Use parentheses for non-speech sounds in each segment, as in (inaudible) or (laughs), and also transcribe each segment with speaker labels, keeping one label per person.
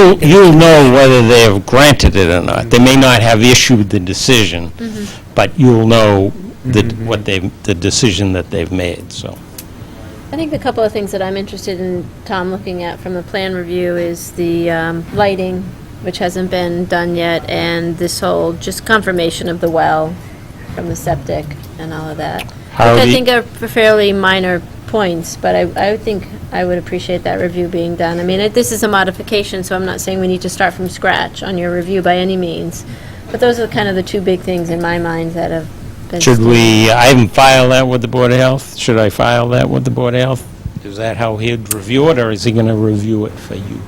Speaker 1: He'll, he'll know whether they have granted it or not. They may not have issued the decision,
Speaker 2: Mm-hmm.
Speaker 1: but you'll know that, what they, the decision that they've made, so.
Speaker 2: I think a couple of things that I'm interested in, Tom, looking at from the plan review is the um, lighting, which hasn't been done yet, and this whole just confirmation of the well from the septic and all of that.
Speaker 1: How
Speaker 2: Which I
Speaker 1: the-
Speaker 2: think are fairly minor points, but I, I think I would appreciate that review being done. I mean, it- this is a modification, so I'm not saying we need to start from scratch on your review by any means. But those are kind of the two big things in my mind that have been.
Speaker 1: Should we, I haven't filed that with the Board of Health. Should I file that with the Board of Health? Is that how he'd review it, or is he going to review it for you?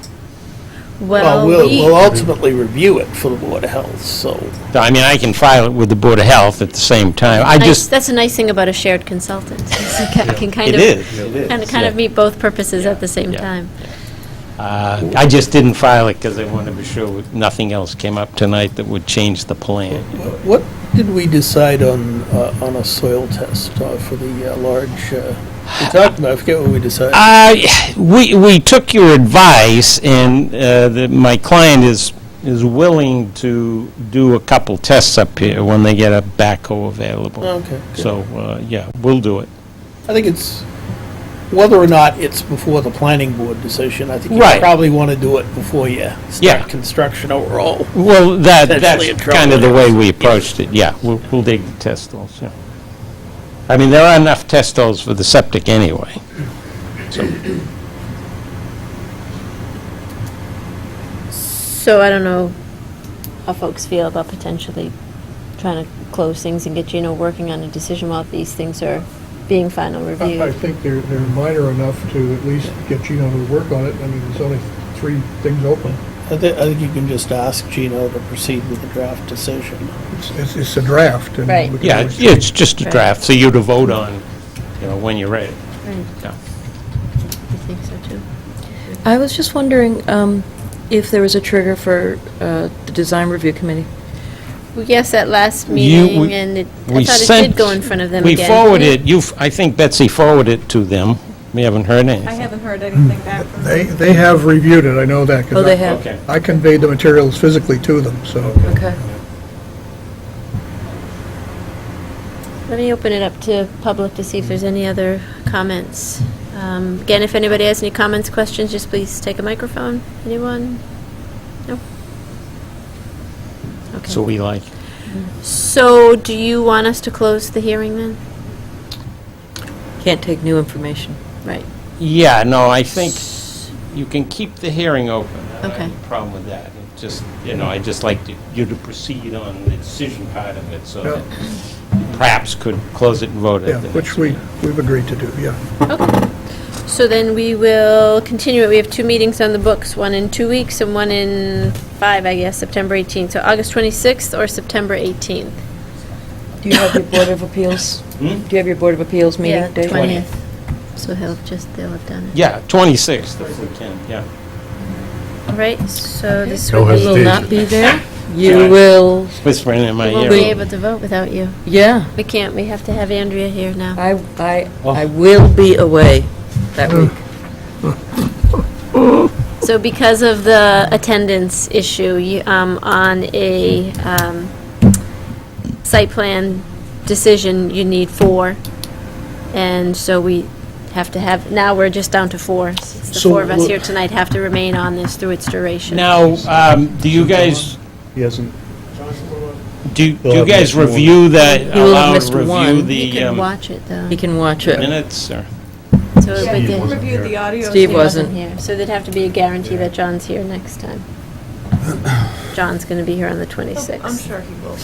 Speaker 2: Well,
Speaker 3: Well, we'll,
Speaker 2: uh, we-
Speaker 3: we'll ultimately review it for the Board of Health, so.
Speaker 1: I mean, I can file it with the Board of Health at the same time. I
Speaker 2: Nice-
Speaker 1: just,
Speaker 2: That's a nice thing about a shared consultant, (laughs) is it ca- can kind
Speaker 1: it
Speaker 2: of.
Speaker 1: is.
Speaker 2: Kind of, kind of meet both purposes at the same
Speaker 1: Yeah.
Speaker 2: time.
Speaker 1: Uh, I just didn't file it because I wanted to be sure nothing else came up tonight that would change the plan.
Speaker 3: What did we decide on, uh, on a soil test uh, for the uh, large, uh, we talked about, I forget what we decided.
Speaker 1: Uh, we, we took your advice, and uh, the, my client is, is willing to do a couple tests up here when they get a backhoe available.
Speaker 3: Okay.
Speaker 1: So, uh, yeah, we'll do it.
Speaker 3: I think it's, whether or not it's before the planning board decision, I think
Speaker 1: Right.
Speaker 3: you probably want to do it before you
Speaker 1: Yeah.
Speaker 3: start construction overall.
Speaker 1: Well, that, that's
Speaker 3: Potentially in trouble.
Speaker 1: kind of the way we approached it, yeah. We'll, we'll dig the test holes, yeah. I mean, there are enough test holes for the septic anyway.
Speaker 2: So I don't know how folks feel about potentially trying to close things and get, you know, working on a decision while these things are being final
Speaker 4: I I
Speaker 2: reviewed.
Speaker 4: think they're, they're minor enough to at least get Gino to work on it. I mean, there's only three things open.
Speaker 3: I think, I think you can just ask Gino to proceed with the draft decision.
Speaker 4: It's- It's, it's a draft. and we
Speaker 2: Right.
Speaker 4: can
Speaker 1: Yeah,
Speaker 4: always-
Speaker 1: it's- it's just a
Speaker 2: Right.
Speaker 1: draft, so you to vote on, you know, when you're ready.
Speaker 2: Right,
Speaker 1: Yeah.
Speaker 2: I think so too.
Speaker 5: I was just wondering um, if there was a trigger for uh, the design review committee.
Speaker 2: Well, Yes, at last
Speaker 1: You- we-
Speaker 2: meeting, and it- I
Speaker 1: we
Speaker 2: thought it
Speaker 1: sent-
Speaker 2: did go in front of them
Speaker 1: We
Speaker 2: again.
Speaker 1: forwarded, you, I think Betsy forwarded it to them. We haven't heard anything.
Speaker 6: I haven't heard anything back from
Speaker 4: They, they have reviewed it, I know that. 'cause
Speaker 5: Oh, they
Speaker 4: I-
Speaker 5: have?
Speaker 1: Okay.
Speaker 4: I conveyed the materials physically to them, so.
Speaker 5: Okay.
Speaker 2: Let me open it up to public to see if there's any other comments. Um, Again, if anybody has any comments, questions, just please take a microphone. Anyone? No?
Speaker 1: So
Speaker 2: Okay.
Speaker 1: we like,
Speaker 2: So do you want us to close the hearing then?
Speaker 5: Can't take new information.
Speaker 2: Right.
Speaker 1: yeah, no, I think you can keep the hearing open. I don't have
Speaker 2: Okay.
Speaker 1: any Problem with that. It just, you know, I just like to- you to proceed on the decision part of it, so
Speaker 4: Yeah.
Speaker 1: that perhaps could close it and vote
Speaker 4: Yeah,
Speaker 1: at the
Speaker 4: which
Speaker 1: next
Speaker 4: we,
Speaker 1: meeting.
Speaker 4: we've agreed to do, yeah.
Speaker 2: So then we will continue it. We have two meetings on the books, one in two weeks and one in five, I guess, September 18th. So August 26th or September 18th?
Speaker 5: Do you have your Board of Appeals?
Speaker 1: Hmm?
Speaker 5: Do you have your Board of Appeals
Speaker 2: Yeah,
Speaker 5: meeting date?
Speaker 2: 20th. So he'll just, they'll have done it.
Speaker 1: Yeah, 26th if we can, yeah.
Speaker 2: All right, so this
Speaker 7: No
Speaker 2: would be...
Speaker 5: You will not be there?
Speaker 1: Yeah.
Speaker 5: You will,
Speaker 1: Whispering in my
Speaker 2: We
Speaker 1: ear.
Speaker 2: won't be able to vote without you.
Speaker 5: yeah.
Speaker 2: We can't, we have to have Andrea here now.
Speaker 5: I, I,
Speaker 1: Oh.
Speaker 5: Hmm. I will be away that week.
Speaker 2: So because of the attendance issue, you, um, on a, um, site plan decision, you need four. And so we have to have, now we're just down to four. Since the
Speaker 3: So
Speaker 2: four of us
Speaker 3: we'll-
Speaker 2: here tonight have to remain on this through its duration.
Speaker 1: Now, um, do you guys,
Speaker 4: He hasn't.
Speaker 1: do do
Speaker 4: They'll
Speaker 1: you
Speaker 4: have
Speaker 1: guys
Speaker 4: missed one.
Speaker 1: review that,
Speaker 5: He will have
Speaker 1: allow,
Speaker 5: missed
Speaker 1: review
Speaker 5: one.
Speaker 2: You
Speaker 1: the
Speaker 2: can
Speaker 1: um,
Speaker 2: watch it, though.
Speaker 5: He can watch it.
Speaker 1: minutes, or?
Speaker 2: So it would
Speaker 6: Steve
Speaker 2: get-
Speaker 6: reviewed the audio.
Speaker 5: Steve
Speaker 2: He
Speaker 5: was-
Speaker 2: wasn't here, so there'd have to be a guarantee that John's here next
Speaker 3: (clears throat)
Speaker 2: time. John's going to be here on the
Speaker 6: Oh, I'm
Speaker 2: 26th.
Speaker 6: sure he will be.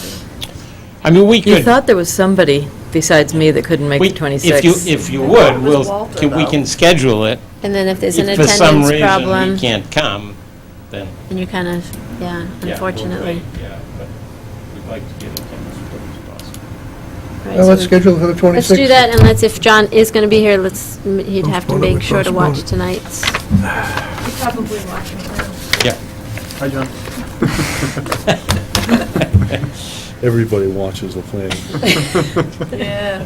Speaker 1: I mean, we
Speaker 5: You
Speaker 1: could,
Speaker 5: thought there was somebody besides me that couldn't make
Speaker 1: we-
Speaker 5: the
Speaker 1: if you,
Speaker 5: 26th.
Speaker 1: if you
Speaker 6: I thought
Speaker 1: would,
Speaker 6: it was
Speaker 1: we'll,
Speaker 6: Walter,
Speaker 1: can- we
Speaker 6: though.
Speaker 1: can schedule it.
Speaker 2: And then if there's an
Speaker 1: If for some
Speaker 2: attendance
Speaker 1: reason
Speaker 2: problem,
Speaker 1: we can't come, then,
Speaker 2: then you kind of, yeah,
Speaker 1: yeah, we'll
Speaker 2: unfortunately.
Speaker 1: wait, yeah, but we'd like to get attendance as quick as possible.
Speaker 2: Right,
Speaker 4: Well,
Speaker 2: so
Speaker 4: let's
Speaker 2: we-
Speaker 4: schedule it for the 26th.
Speaker 2: Let's do that, and let's, if John is going to be here, let's, m- he'd have to
Speaker 4: Postpone it,
Speaker 2: make sure to
Speaker 4: postpone
Speaker 2: watch
Speaker 4: it.
Speaker 2: tonight's.
Speaker 6: He's probably watching now.
Speaker 1: Yeah.
Speaker 4: Hi, John.
Speaker 7: Everybody watches the plane.
Speaker 6: Yeah.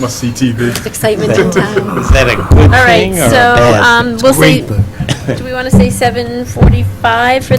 Speaker 7: Must see TV.
Speaker 2: excitement in town.
Speaker 1: Is that a good
Speaker 2: All right, um,
Speaker 1: thing or a
Speaker 2: so,
Speaker 1: bad thing?
Speaker 2: um, we'll say, do we want to say 7:45 for